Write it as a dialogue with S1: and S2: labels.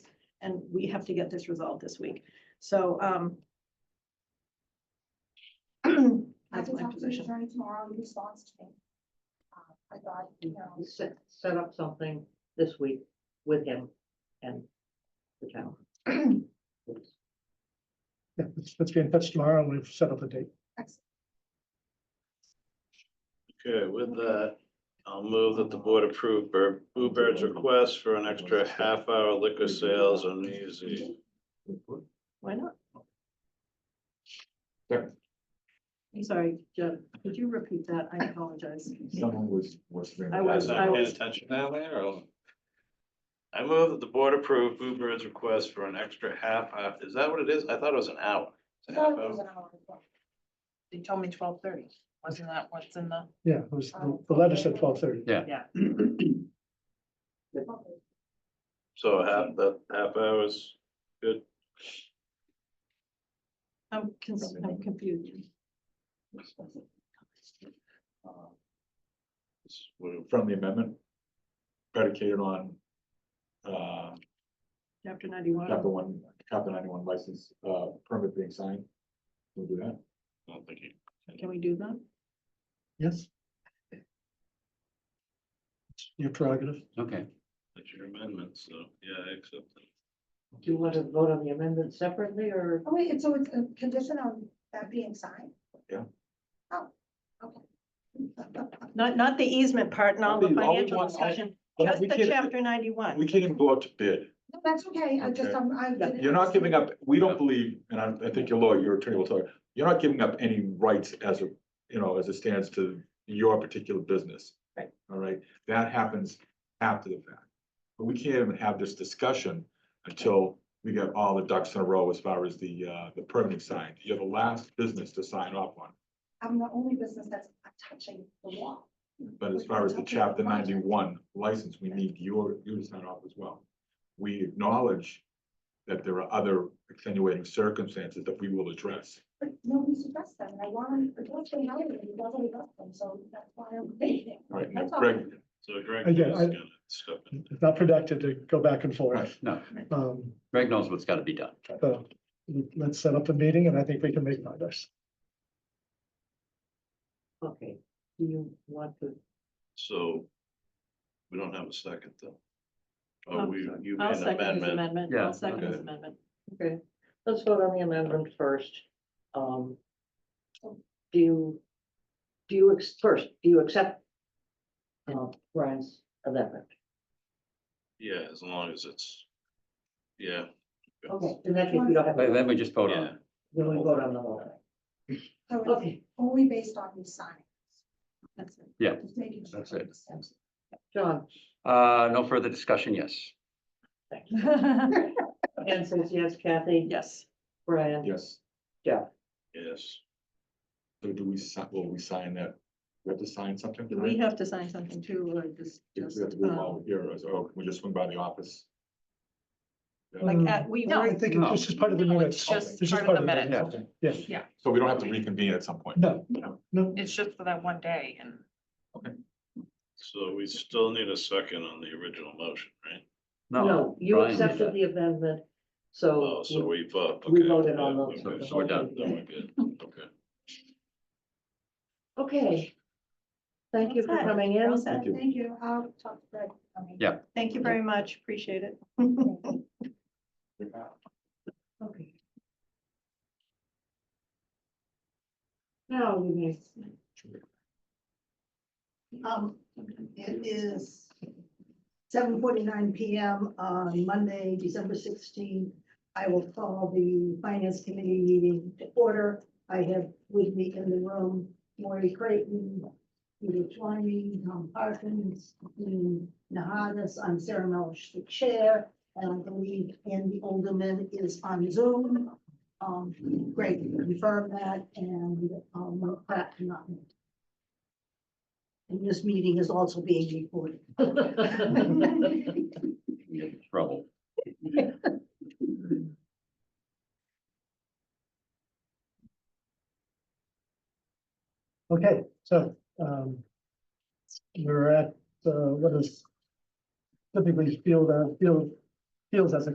S1: and we have to get this resolved this week. So, um.
S2: I
S1: That's
S2: can
S1: my
S2: talk to the
S1: position.
S2: attorney tomorrow in response to me. Uh, I thought, you know,
S3: We set, set up something this week with him and the town.
S4: Yeah, let's, let's get in touch tomorrow and we've set up a date.
S2: ex-
S5: Okay, with that, I'll move that the board approve Bur- Boo Bird's request for an extra half hour liquor sales on New Year's Eve.
S1: Why not?
S6: Sure.
S1: I'm sorry, Jeff, could you repeat that? I apologize.
S6: Someone was, was. bringing
S1: I
S6: that
S1: was-
S6: up.
S1: I was-
S5: attention down there or? I move that the board approve Boo Bird's request for an extra half hour. Is that what it is? I thought it was an hour.
S2: I
S5: It's a
S2: thought
S5: half
S2: it was
S5: hour.
S2: an hour before.
S7: They told me twelve thirty, wasn't that what's in the?
S4: Yeah, it was, the the letter said twelve thirty.
S8: Yeah.
S2: Okay.
S5: So half, that half hour is good.
S1: I'm cons- I'm confused.
S6: Uh, From the amendment predicated on uh,
S1: Chapter ninety-one,
S6: chapter one, chapter ninety-one license uh, permit being signed. We'll do that.
S5: I don't think you-
S1: can we do that?
S4: Yes. Your prerogative.
S8: Okay,
S5: That's your amendment, so yeah, I accept it.
S3: Do you want to vote on the amendment separately or?
S2: Oh, wait, it's- so it's a condition on that being signed?
S6: Yeah.
S2: Oh, okay.
S1: Not, not the easement part, not the
S6: All we- all we
S1: financial
S6: want- all-
S1: discussion,
S6: But
S1: just
S6: we
S1: the
S6: can't-
S1: chapter
S6: We
S1: ninety-one.
S6: can't even go out to bid.
S2: No, that's okay, I just,
S6: Okay.
S2: I'm, I. didn't-
S6: You're not giving up, we don't believe, and I, I think your lawyer, your attorney will tell you, you're not giving up any rights as a, you know, as it stands to your particular business.
S2: Right.
S6: All right, that happens after the fact. But we can't even have this discussion until we get all the ducks in a row as far as the, uh, the permitting side. You're the last business to sign off on.
S2: I'm the only business that's touching the wall.
S6: But as far as the chapter ninety-one license, we need your, you to sign off as well. We acknowledge that there are other extenuating circumstances that we will address.
S2: But nobody's addressed them, and I want to, I don't think anybody doesn't address them, so that's why I'm waiting.
S6: All right, now
S2: That's all.
S6: Greg,
S5: So Greg is
S4: Again, I-
S5: gonna step in.
S4: It's not productive to go back and forth.
S8: no,
S4: Um,
S8: Greg knows what's gotta be done.
S4: so let's set up a meeting and I think we can make progress.
S3: Okay, do you want to?
S5: So we don't have a second though. Oh,
S1: Um,
S5: we, you
S1: I'll
S5: made an
S1: second his
S5: amendment.
S1: amendment.
S8: Yeah,
S1: I'll second his
S5: okay.
S1: amendment.
S3: Okay, let's vote on the amendment first. Um, do you, do you, ex- first, do you accept uh, Brian's amendment?
S5: Yeah, as long as it's, yeah.
S3: Okay, in that case, we don't have.
S8: But
S3: to
S8: Then we just vote on
S5: Yeah,
S8: it.
S3: Then we vote on the whole
S2: So
S3: thing.
S2: it's
S3: Okay,
S2: only based on the sign. That's it.
S8: Yeah,
S2: Just making sure.
S8: that's it.
S3: John,
S8: Uh, no further discussion, yes.
S3: thank you. And says yes, Kathy,
S1: Yes,
S3: Brian.
S6: yes,
S5: yes.
S6: so do we, si- will we sign that? We have to sign something?
S1: Do we
S6: tonight?
S1: have to sign something too, or just,
S6: If
S1: just,
S6: we have to do it
S1: um,
S6: while we're here, or is- or can we just swing by the office?
S1: like, at- we.
S4: No, I think it's just part of the
S7: No,
S4: minutes.
S7: it's
S6: This
S7: just
S4: is
S7: part of the
S4: part of it,
S7: minute.
S8: yeah.
S6: Okay.
S4: Yes.
S7: Yeah.
S6: So we don't have to reconvene at some point?
S4: No, no.
S7: It's just for that one day and
S5: So we still need a second on the original motion, right?
S3: No, you
S8: Brian did
S3: accepted
S8: that.
S3: the amendment, so.
S5: Oh, so we vote.
S3: we
S5: okay,
S3: voted
S5: yeah,
S3: on the-
S5: okay,
S8: the So we're done.
S5: Then we're good, okay.
S3: Okay. Thank you for
S1: Okay.
S3: coming in.
S1: We're all set.
S6: Thank you.
S2: Thank you, I'll talk to Greg. I mean,
S8: Yeah.
S1: Thank you very much, appreciate it.
S3: Okay. Now we may.
S9: Um, it is seven forty-nine PM on Monday, December sixteenth. I will call the finance committee meeting to order. I have with me in the room Maury Creighton, Peter Twine, Tom Parkins, Dean Nahadas. I'm Sarah Melish, the chair, and I believe Andy Olderman is on Zoom. Um, great, confirm that, and, um, Mark Pratt cannot make it. And this meeting is also being recorded.
S8: We get in Trouble.
S4: Okay, so, um, we're at, uh, what is typically field, uh, field, fields as a